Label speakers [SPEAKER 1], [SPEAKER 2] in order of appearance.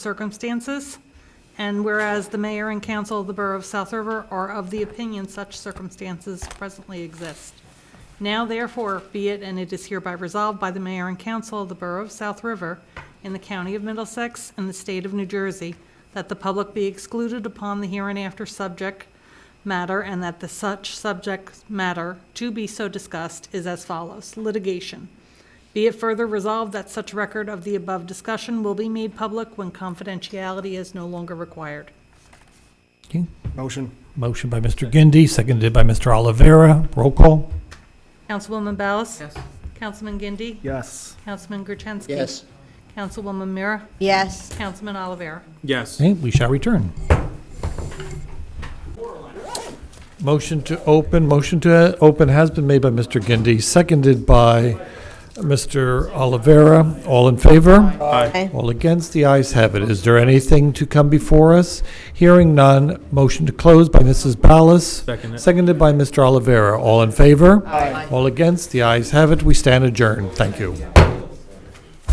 [SPEAKER 1] circumstances. And whereas the mayor and council of the Borough of South River are of the opinion such circumstances presently exist. Now therefore be it, and it is hereby resolved by the mayor and council of the Borough of South River in the county of Middlesex and the state of New Jersey, that the public be excluded upon the hereinafter subject matter and that the such subject matter to be so discussed is as follows. Litigation. Be it further resolved that such record of the above discussion will be made public when confidentiality is no longer required.
[SPEAKER 2] Okay.
[SPEAKER 3] Motion.
[SPEAKER 2] Motion by Mr. Gindi, seconded by Mr. Oliveira. Roll call.
[SPEAKER 1] Councilwoman Ballas? Yes. Councilman Gindi?
[SPEAKER 3] Yes.
[SPEAKER 1] Councilman Gertenski?
[SPEAKER 4] Yes.
[SPEAKER 1] Councilwoman Mira?
[SPEAKER 5] Yes.
[SPEAKER 1] Councilman Olivera?
[SPEAKER 6] Yes.
[SPEAKER 2] Okay, we shall return. Motion to open, motion to open has been made by Mr. Gindi, seconded by Mr. Oliveira. All in favor?
[SPEAKER 5] Aye.
[SPEAKER 2] All against, the ayes have it. Is there anything to come before us? Hearing none, motion to close by Mrs. Ballas.
[SPEAKER 6] Second it.
[SPEAKER 2] Seconded by Mr. Oliveira. All in favor? Aye. All against, the ayes have it. We stand adjourned. Thank you.